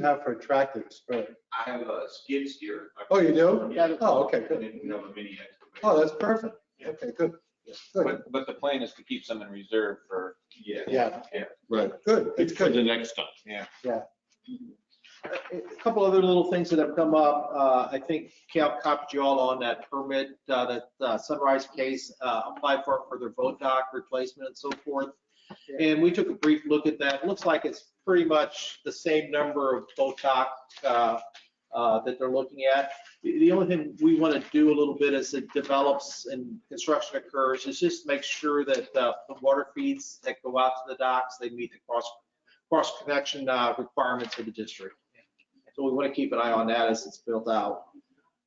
you have for a tractor tractors? I have a skid steer. Oh, you do? Yeah. Oh, okay, And good. then we have a mini excavator. Oh, that's perfect. Okay, good. Good. But, but the plan is to keep some in reserve for, Yeah. Yeah. Yeah. Right. Good, it's For good. the next time. A couple other little things that have come up. Uh, I think Cal copied you all on that permit, uh, that uh, Sunrise case, uh, apply for, for their boat dock replacement and so forth. And we took a brief look at that. Looks like it's pretty much the same number of boat dock, uh, uh, that they're looking at. The, the only thing we want to do a little bit as it develops and construction occurs is just make sure that, uh, the water feeds that go out to the docks, they meet the cross, cross connection, uh, requirements of the district. So we want to keep an eye on that as it's built out.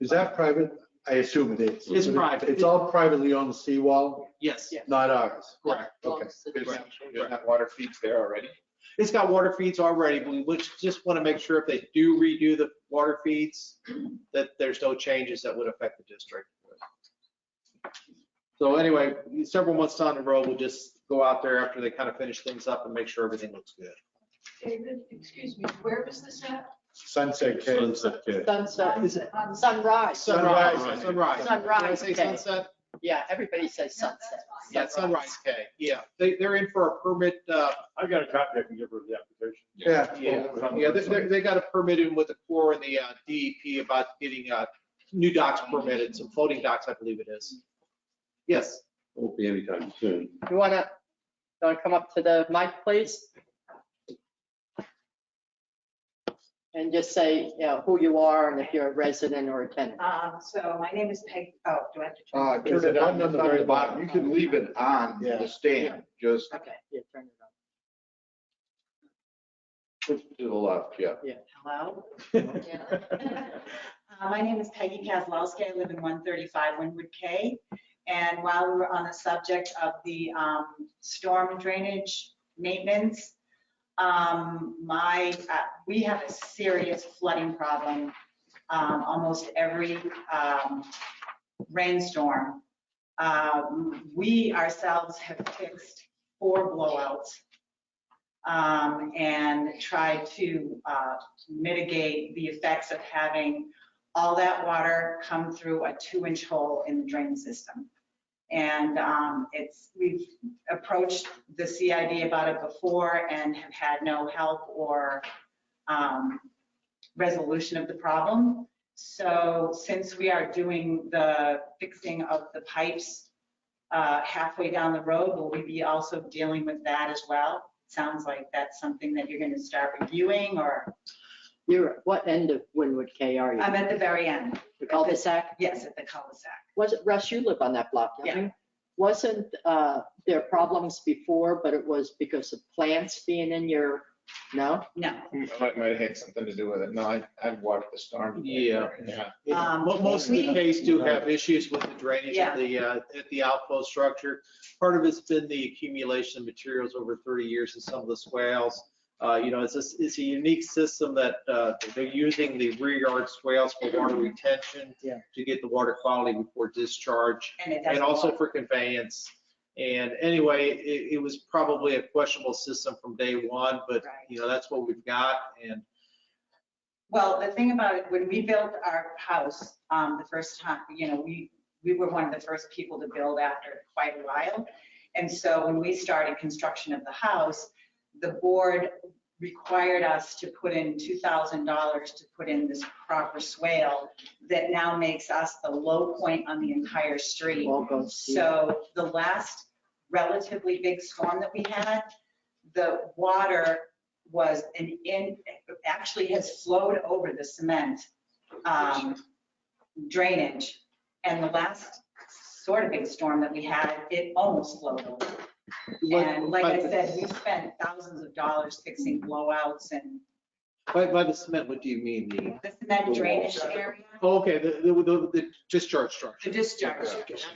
Is that private? I assume it is. It's private. It's all privately owned seawall, Yes, not ours. correct. Okay. doing that water feeds there already? It's got water feeds already, but we would- just want to make sure if they do redo the water feeds, that there's no changes that would affect the district. So anyway, several months down the road, we'll just go out there after they kind of finish things up and make sure everything looks good. David, excuse me, where was this at? Sunset Cave. Sunset Cay. Sunset, Is it- On sunrise, Sunrise, Sunrise. sunrise. Sunrise, Did I say okay. sunset? yeah, everybody says Yeah, that's sunset. fine. Yeah, sunrise, okay, yeah. They, they're in for a permit, uh, I've got a copy I can give her of the application. Yeah. Yeah, yeah, they, they- they got a permit in with the Corps and the uh, DEP about getting uh, new docks permitted, some floating docks, I believe it is. Yes, Won't be anytime soon. You wanna, you wanna come up to the mic, please? And just say, you know, who you are and if you're a resident or a tenant. Um, so my name is Peg, oh, do I have to? Uh, turn- turn it on, it's on the bottom. You can leave it on Yeah. the stand, just Okay, yeah, turn it push to the left, yeah. on. Yeah, Hello? Yeah. Uh, My name is Peggy Kazlowski. I live in 135 Winwood K. And while we were on the subject of the um, storm drainage maintenance, um, my, uh, we have a serious flooding problem um, almost every um, rainstorm. Um, We ourselves have fixed four blowouts um, and tried to uh, mitigate the effects of having all that water come through a two-inch hole in the drain system. And um, it's, we've approached the CID about it before and have had no help or um, resolution of the problem. So since we are doing the fixing of the pipes uh, halfway down the road, will we be also dealing with that as well? Sounds like that's something that you're going to start reviewing or? You're, what end of Winwood K are you? I'm at the very end, The cul-de-sac? yes, at the cul-de-sac. Was it, Russ, you live on that block, don't you? Wasn't, uh, there problems before, but it was because of plants being in your, no? No. Hmm. Might, might have had something to do with it. No, I, I've watched the storm. Yeah. Yeah. Um, Mo- most of the we- cases do have issues with the drainage at the, uh, at the outflow structure. Part of it's been the accumulation of materials over 30 years in some of the swales. Uh, You know, it's, a- it's a unique system that uh, they're using the rear yard swales for water retention Yeah. to get the water quality before discharge. And it doesn't. and also work. for conveyance. And anyway, it, it was probably a questionable system from day one, but, Right. you know, that's what we've got, and Well, the thing about it, when we built our house, um, the first time, you know, we, we were one of the first people to build after quite a while. And so when we started construction of the house, the board required us to put in two thousand dollars to put in this proper swale that now makes us the low point on the entire street. Won't go see. So the last relatively big storm that we had, the water was an in, actually has flowed over the cement um, drainage. And the last sort of big storm that we had, it almost flowed over. And like I But- said, we spent thousands of dollars fixing blowouts and By, by the cement, what do you mean, the, the cement drainage area, oh, okay, the, the, the- the discharge structure? the discharge.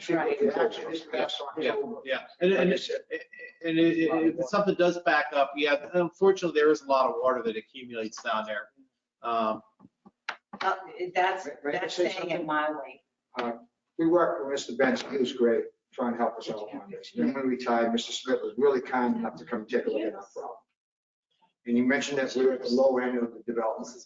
Right. Yeah, yeah, and, and, and it- it- if something does back up, yeah, unfortunately, there is a lot of water that accumulates down there. Um, Uh, That's, Right, right, that's say saying it mildly. Uh, We worked with Mr. Benson, he was great, trying to help us out on this. Then when we retired, Mr. Smith was really kind enough to come take a look at our problem. And you mentioned that we're at the low end of the development.